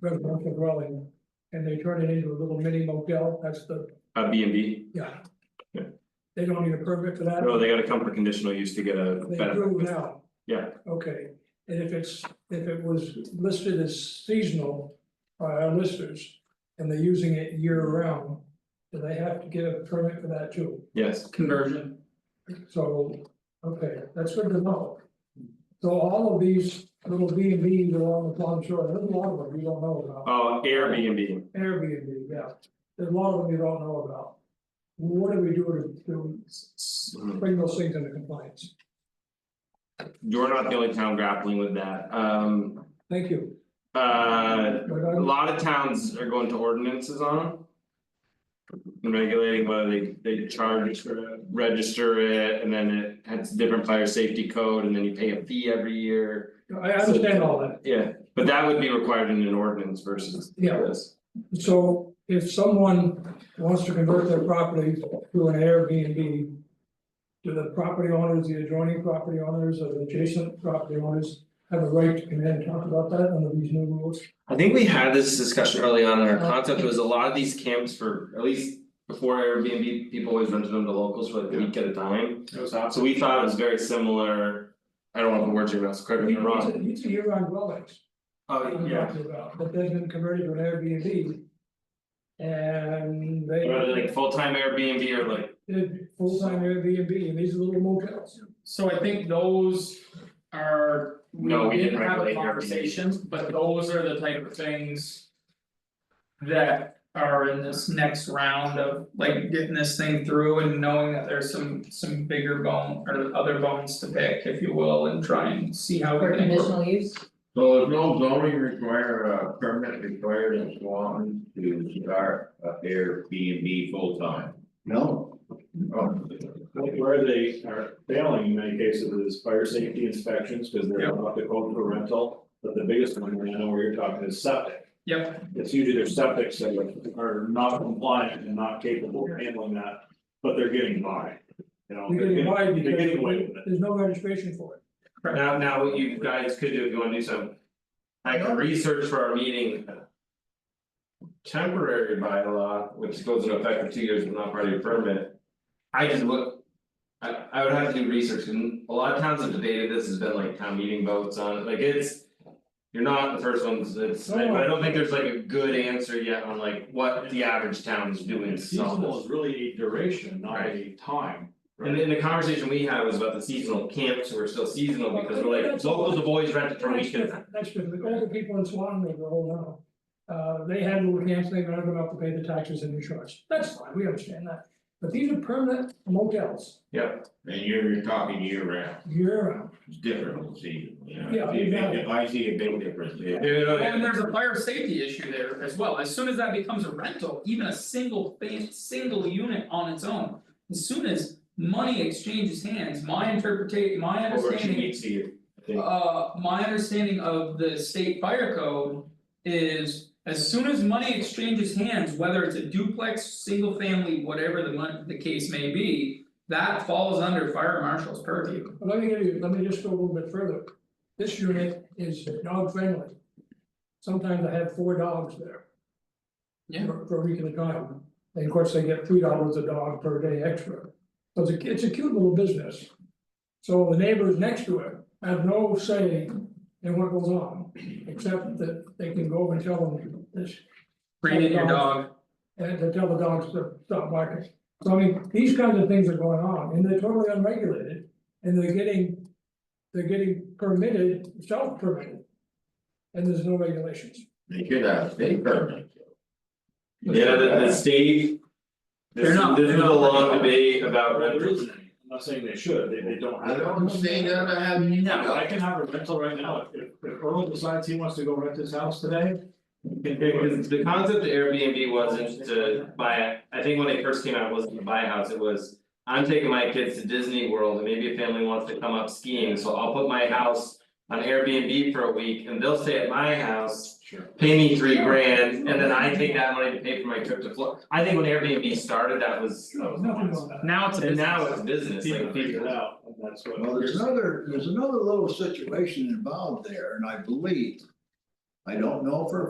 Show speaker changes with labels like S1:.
S1: residential dwelling, and they turn it into a little mini motel, that's the,
S2: A Uh, B and B,
S1: yeah.
S2: Yeah.
S1: They don't need a permit for that,
S2: no, they gotta come for conditional use to get a
S1: Oh, they
S2: benefit,
S1: do now,
S2: yeah,
S1: okay, and if it's, if it was listed as seasonal by our listers. And they're using it year round, do they have to get a permit for that too?
S2: yes.
S3: conversion.
S1: So, okay, that's good to know. So all of these little B and Bs along the Plum Shore, there's a lot of them you don't know about.
S2: Oh, Airbnb,
S1: Airbnb, yeah, there's a lot of them you don't know about. What do we do to, to
S2: Mm-hmm.
S1: bring those things into compliance?
S2: you're not the only town grappling with that, um,
S1: Thank you.
S2: uh,
S1: But
S2: a
S1: I'm-
S2: lot of towns are going to ordinances on. them. Regulating whether they they charge for it, register it, and then it has different fire safety code, and then you pay a fee every year,
S1: I understand all that,
S2: yeah, but that would be required in an ordinance versus
S1: Yeah.
S2: this.
S1: so if someone wants to convert their property to an Airbnb. Do the property owners, the adjoining property owners or the adjacent property owners have a right to come in and talk about that under these new rules?
S2: I think we had this discussion early on in our concept, was a lot of these camps for, at least before Airbnb, people always rented them to locals for like a week at a time.
S3: It was awesome.
S2: So we thought it was very similar, I don't wanna put words in your mouth, so correct me if I'm wrong.
S1: These are year-round dwellings.
S2: Oh,
S1: I'm
S2: yeah,
S1: talking about, But they've been converted to an Airbnb. And they.
S2: whether like full-time Airbnb or like
S1: Did full-time Airbnb and these are little motels.
S3: So I think those are, we
S2: No, we didn't
S3: didn't have
S2: regulate
S3: a
S2: your
S3: conversation, but those are the type of things. That are in this next round of like getting this thing through and knowing that there's some some bigger bone or other bones to pick, if you will, and try and see how we
S4: For
S3: can. work.
S4: conditional use,
S5: So if no zoning require a permit required in Swanton to start a Airbnb full time? No. Oh,
S6: Like where they are failing in many cases is fire safety inspections, because
S3: Yeah.
S6: they're not the code for rental, but the biggest one, and I know where you're talking is septic.
S3: Yep,
S6: It's usually their septics that are not compliant and not capable of handling that, but they're getting by. You know,
S1: You're
S6: they're
S1: getting
S6: getting,
S1: wide
S6: they're getting away
S1: because
S6: with it.
S1: there's no registration for it.
S2: Now, now what you guys could do if you wanna do some. I can research for our meeting. Temporary bylaw, which goes into effect for two years but not part of your permit. I just look. I I would have to do research and a lot of towns have debated this, has been like town meeting votes on it, like it's. You're not the first ones, it's, I I don't think there's like a good answer yet on like what the average town is doing, so.
S6: Seasonal is really a duration, not a time.
S2: And then the conversation we had was about the seasonal camps who are still seasonal because we're like, locals have always rented for a
S1: That's
S2: weekend.
S1: different, that's different. The older people in Swan Lake are old now. Uh, they had little camps, they never enough to pay the taxes and insurance. That's fine, we understand that. But these are permanent motels,
S5: and you're you're talking year round,
S1: year-round.
S5: it's different from season, you know,
S1: Yeah,
S5: if
S1: exactly.
S5: if I see a big difference, yeah.
S2: You know,
S3: and there's a fire safety issue there as well, as soon as that becomes a rental, even a single fan, single unit on its own. As soon as money exchanges hands, my interpretation, my
S2: Over two
S3: understanding
S2: weeks a year, I think.
S3: Uh, my understanding of the state fire code is as soon as money exchanges hands, whether it's a duplex, single family, whatever the mon- the case may be. That falls under fire marshal's purview.
S1: But Let me give you, let me just go a little bit further. This unit is dog friendly. Sometimes I have four dogs there.
S3: Yeah.
S1: For for a week at a time, and of course, they get three dollars a dog per day extra. So it's a, it's a cute little business. So the neighbors next to it have no say in what goes on, except that they can go over and tell them this,
S3: Bring in your dog,
S1: and to tell the dogs to stop barking. So I mean, these kinds of things are going on and they're totally unregulated and they're getting, they're getting permitted, self-permitted. And there's no regulations.
S5: They should have a state permit.
S2: Yeah, the the state.
S3: They're
S2: This
S3: not-
S2: this is
S3: they're
S2: a
S3: not-
S2: long debate about
S6: Well, there
S2: rentals.
S6: isn't any. I'm not saying they should, they they don't
S5: I
S6: have.
S5: don't say that I have.
S3: no,
S6: I can have a rental right now, if if if Earl decides he wants to go rent his house today. he can do it.
S2: Because the concept of Airbnb wasn't to buy, a- I think when it first came out, it wasn't to buy a house, it was. I'm taking my kids to Disney World and maybe a family wants to come up skiing, so I'll put my house on Airbnb for a week and they'll stay at my house.
S6: Sure.
S2: Pay me three grand and then I take that money to pay for my trip to Florida. I think when Airbnb started, that was, that was the
S1: Nothing
S2: one.
S1: on that.
S3: now it's a
S2: And now
S3: business,
S2: it's business,
S6: People
S2: like
S6: figure
S2: people.
S6: it out, and that's what.
S7: Well, there's another, there's another little situation involved there, and I believe. I don't know for a